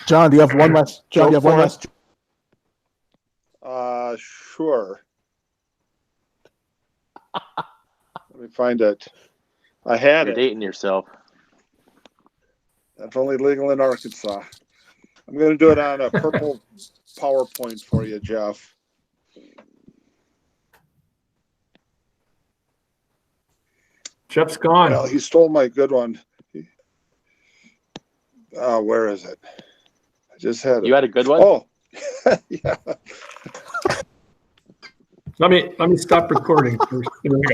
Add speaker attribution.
Speaker 1: John, do you have one last, John, do you
Speaker 2: Go
Speaker 1: have one
Speaker 2: for it.
Speaker 1: last?
Speaker 2: Uh, sure. Let me find it. I had
Speaker 3: You're
Speaker 2: it.
Speaker 3: dating yourself.
Speaker 2: That's only legal in Arkansas. I'm gonna do it on a purple PowerPoint for you, Jeff.
Speaker 4: Jeff's gone.
Speaker 2: Well, he stole my good one. Uh, where is it? I just had
Speaker 3: You
Speaker 2: it.
Speaker 3: had a good one?
Speaker 2: Oh. Yeah.
Speaker 4: Let me, let me stop recording first.